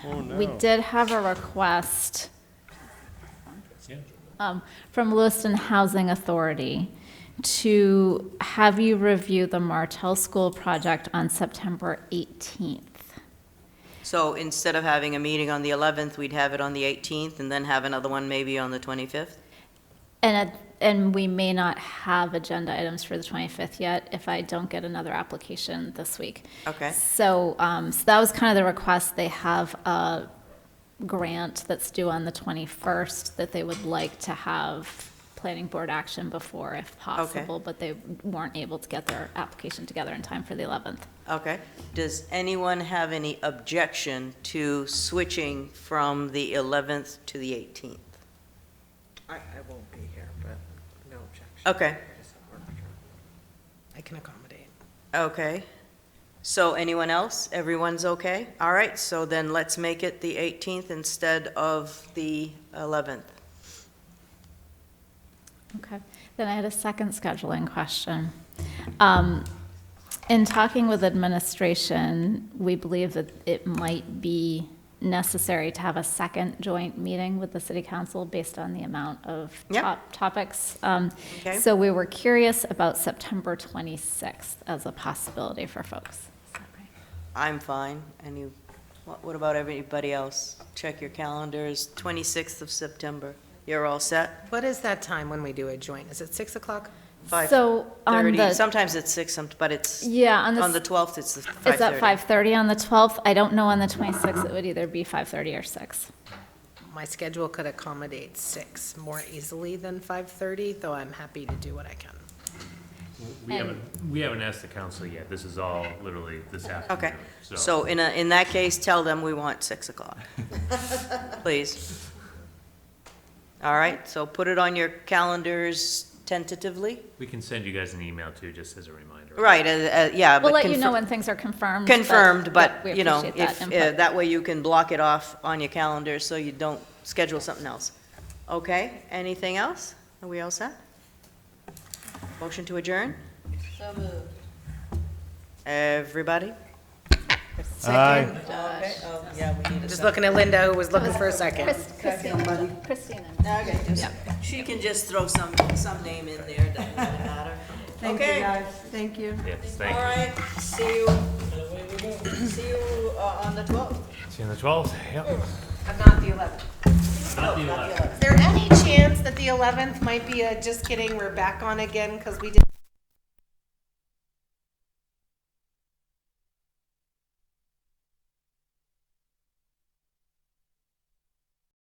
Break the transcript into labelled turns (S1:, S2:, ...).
S1: Oh,
S2: We
S1: no.
S2: did have a request um, from Lewiston Housing Authority to have you review the Martell School project on September 18th.
S3: So instead of having a meeting on the 11th, we'd have it on the 18th and then have another one maybe on the 25th?
S2: And, it- and we may not have agenda items for the 25th yet if I don't get another application this week.
S3: Okay.
S2: So, um, so that was kind of the request. They have a grant that's due on the 21st that they would like to have planning board action before if possible, but they weren't able to get their application together in time for the 11th.
S3: Okay. Does anyone have any objection to switching from the 11th to the 18th?
S4: I, I won't be here, but no objection.
S3: Okay,
S4: I can accommodate.
S3: okay. So anyone else? Everyone's okay? All right, so then let's make it the 18th instead of the 11th.
S2: Okay. Then I had a second scheduling question. Um, In talking with administration, we believe that it might be necessary to have a second joint meeting with the city council based on the amount of
S3: Yep.
S2: top topics. Um,
S3: Okay.
S2: So we were curious about September 26th as a possibility for folks. Is that right?
S3: I'm fine. And you, what what about everybody else? Check your calendars, 26th of September. You're all set?
S4: What is that time when we do a joint? Is it 6 o'clock?
S3: Five
S2: So on
S3: 30.
S2: the,
S3: Sometimes it's 6, some- but it's,
S2: yeah, on
S3: on the
S2: the,
S3: 12th, it's the
S2: is that
S3: 5:30.
S2: 5:30 on the 12th? I don't know on the 26th. It would either be 5:30 or 6.
S4: My schedule could accommodate 6 more easily than 5:30, though I'm happy to do what I can.
S5: We
S2: And-
S5: haven't, we haven't asked the council yet. This is all literally this afternoon.
S3: Okay, so in a, in that case, tell them we want 6 o'clock. Please. All right, so put it on your calendars tentatively.
S5: We can send you guys an email too, just as a reminder.
S3: Right, uh, uh, yeah.
S2: We'll
S3: but
S2: let you
S3: confir-
S2: know when things are confirmed. but-
S3: Confirmed, Mm-hmm. but,
S2: we
S3: you know,
S2: appreciate that
S3: if, uh,
S2: input.
S3: that way you can block it off on your calendar so you don't schedule something else. Okay, anything else? Are we all set? Motion to adjourn? So moved. Everybody?
S1: Aye.
S3: Okay, oh, yeah, we need a
S4: Just
S3: second.
S4: looking at Linda, who was looking for a second.
S2: Chris- Christine, Christine.
S3: Okay, just- She can just throw some, some name in there, doesn't really matter.
S6: Thank you,
S3: Okay,
S6: guys. Thank you.
S5: Yes, thank
S3: all
S5: you.
S3: right, see you, see you uh, on the twelfth.
S5: See you on the twelfth, yep.
S4: Not the 11th.
S5: Not the 11th.
S4: Is there any chance that the 11th might be a, just kidding, we're back on again because we did